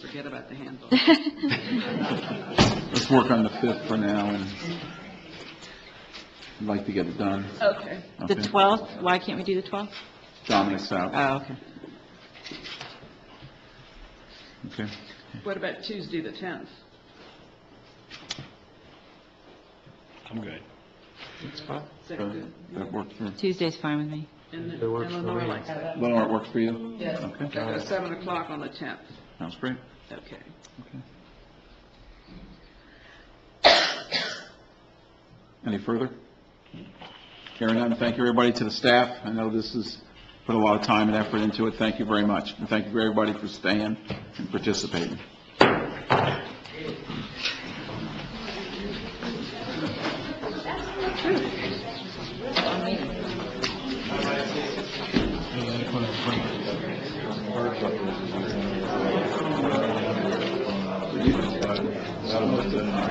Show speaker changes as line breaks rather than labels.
forget about the handle.
Let's work on the 5th for now, and I'd like to get it done.
Okay.
Okay.
The 12th, why can't we do the 12th?
Dominic's out,
Oh, okay.
okay.
What about Tuesday, the 10th?
I'm good.
Is that good?
That worked for,
Tuesday's fine with me.
And
That works for
Eleanor
me.
likes that.
Lenore, it worked for you?
Yes.
Okay,
That's at 7 o'clock on the 10th.
sounds great.
Okay.
Any further? Hearing none, thank you, everybody, to the staff. I know this is, put a lot of time and effort into it. Thank you very much. And thank you, to everybody, for staying and participating.